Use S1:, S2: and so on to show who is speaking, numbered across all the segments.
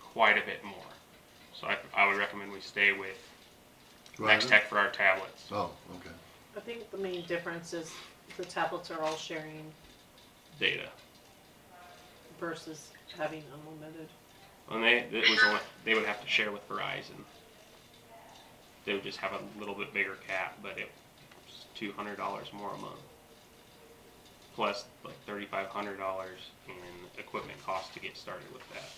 S1: quite a bit more. So I, I would recommend we stay with
S2: Right.
S1: Next Tech for our tablets.
S2: Oh, okay.
S3: I think the main difference is the tablets are all sharing
S1: Data.
S3: versus having unlimited.
S1: And they it was only, they would have to share with Verizon. They would just have a little bit bigger cap, but it was two hundred dollars more a month. Plus like thirty five hundred dollars in equipment cost to get started with that.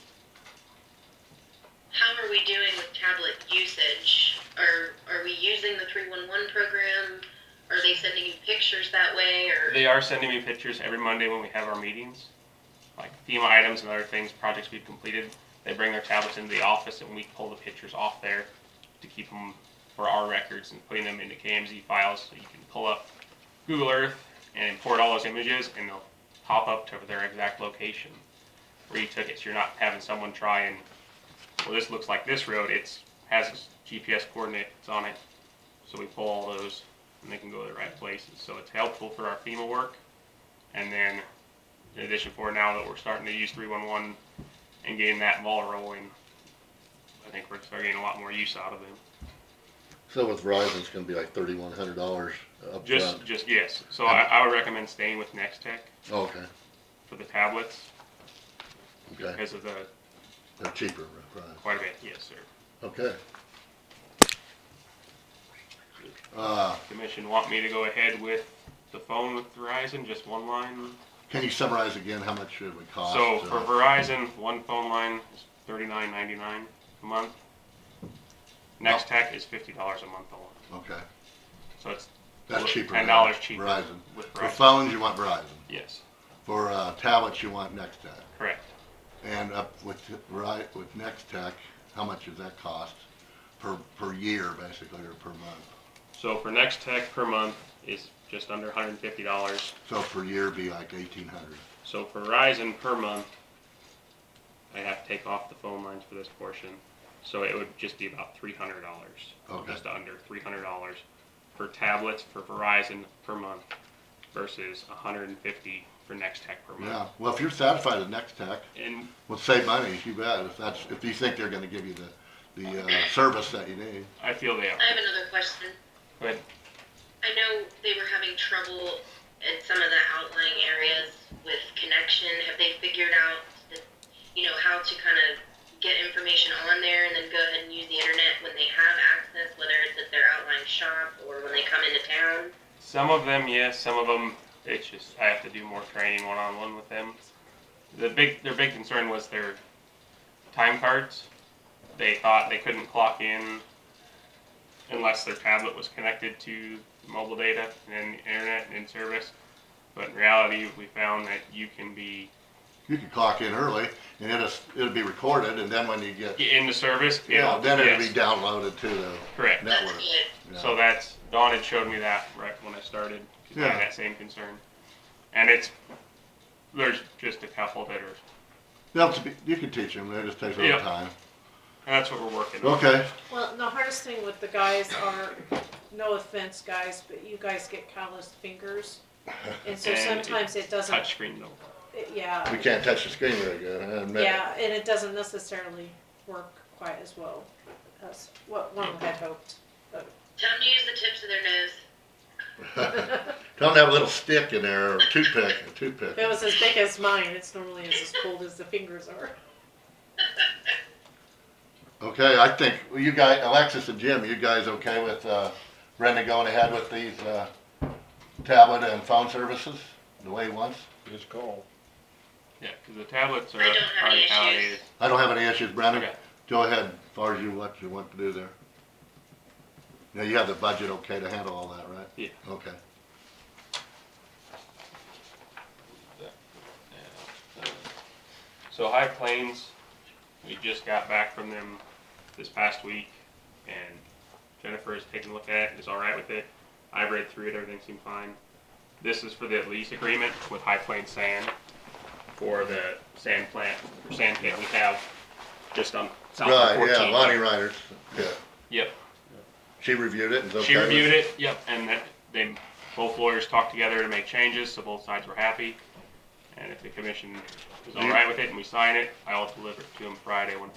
S4: How are we doing with tablet usage? Are, are we using the 311 program? Are they sending you pictures that way or?
S1: They are sending me pictures every Monday when we have our meetings, like FEMA items and other things, projects we've completed. They bring their tablets into the office and we pull the pictures off there to keep them for our records and putting them into KMZ files so you can pull up Google Earth and import all those images and they'll pop up to their exact location where you took it. So you're not having someone try and, well, this looks like this road. It's has its GPS coordinates on it. So we pull all those and they can go to the right places. So it's helpful for our FEMA work. And then, in addition, for now that we're starting to use 311 and getting that ball rolling, I think we're starting to get a lot more use out of them.
S2: So with Verizon, it's gonna be like thirty-one hundred dollars
S1: Just,
S2: upfront.
S1: just yes. So I, I would recommend staying with Next Tech
S2: Oh, Okay,
S1: for the tablets
S2: okay,
S1: because of the
S2: they're cheaper, right,
S1: quite a bit. Yes, sir.
S2: okay. Uh,
S1: Commission want me to go ahead with the phone with Verizon, just one line.
S2: can you summarize again how much it would cost?
S1: So for
S2: uh,
S1: Verizon, one phone line is $39.99 a month. Next Tech is $50 a month alone.
S2: Okay,
S1: So it's
S2: that's
S1: Well,
S2: cheaper.
S1: Ten
S2: now,
S1: dollars cheaper.
S2: Verizon.
S1: With
S2: For
S1: Verizon.
S2: phones, you want Verizon.
S1: Yes,
S2: For, uh, tablets, you want Next Tech.
S1: correct.
S2: And up with, right, with Next Tech, how much does that cost per, per year basically, or per month?
S1: So for Next Tech per month is just under hundred and fifty dollars.
S2: So per year be like eighteen hundred.
S1: So for Verizon per month, I have to take off the phone lines for this portion. So it would just be about three hundred dollars.
S2: Okay.
S1: Just under three hundred dollars for tablets for Verizon per month versus $150 for Next Tech per
S2: Yeah,
S1: month.
S2: well, if you're satisfied with Next Tech,
S1: And
S2: Well, save money, you bet, if that's, if you think they're gonna give you the, the, uh, service that you need.
S1: I feel they are.
S4: I have another question.
S1: But
S4: I know they were having trouble in some of the outlying areas with connection. Have they figured out, that, you know, how to kind of get information on there and then go ahead and use the internet when they have access, whether it's at their outlying shop or when they come into town?
S1: Some of them, yes. Some of them, it's just I have to do more training one on one with them. The big, their big concern was their time cards. They thought they couldn't clock in unless their tablet was connected to mobile data and internet and service. But in reality, we found that you can be
S2: You can clock in early, and it'll, it'll be recorded, and then when you get,
S1: in the service.
S2: yeah,
S1: it'll-
S2: then it'll
S1: yes,
S2: be downloaded to the
S1: Correct.
S4: That's
S2: network.
S4: good.
S2: Yeah.
S1: So that's Dawn had showed me that right when I started. 'cause I
S2: Yeah.
S1: had that same concern, and it's there's just a couple that are
S2: They'll have to be- You can teach them, it just takes a little
S1: Yeah.
S2: time.
S1: And that's what we're working on.
S2: Okay,
S3: Well, and the hardest thing with the guys are, no offense, guys, but you guys get calloused fingers. And so
S1: And it-
S3: sometimes it doesn't,
S1: Touchscreen though.
S3: it- yeah,
S2: we can't touch the screen very good, I admit.
S3: yeah, and it doesn't necessarily work quite as well as what one had hoped.
S4: Tell them to use the tips of their nose.
S2: Tell them to have a little stick in there, or toothpick, a toothpick.
S3: If it was as big as mine, it's normally is as cold as the fingers are.
S2: Okay, I think, well, you guys, Alexis and Jim, you guys okay with, uh, Brenda going ahead with these, uh, tablet and phone services, the way he wants?
S5: Just call.
S1: Yeah, because the tablets are
S4: I don't have
S1: already
S4: any
S1: validated.
S4: issues.
S2: I don't have any issues, Brandon.
S1: Okay.
S2: Go ahead, as far as you, what you want to do there. Now, you have the budget okay to handle all that, right?
S1: Yeah.
S2: Okay.
S1: So High Plains, we just got back from them this past week, and Jennifer has taken a look at it. Is all right with it. I've read through it. Everything seemed fine. This is for the lease agreement with High Plains Sand for the sand plant or sand pit we have just on South of
S2: Right,
S1: 14.
S2: yeah, Lonnie Ryder's, yeah.
S1: Yep.
S2: She reviewed it and it's okay.
S1: She reviewed it, yep, and that they, both lawyers talked together to make changes, so both sides were happy. And if the commission is all right with it and we sign it, I'll deliver it to them Friday when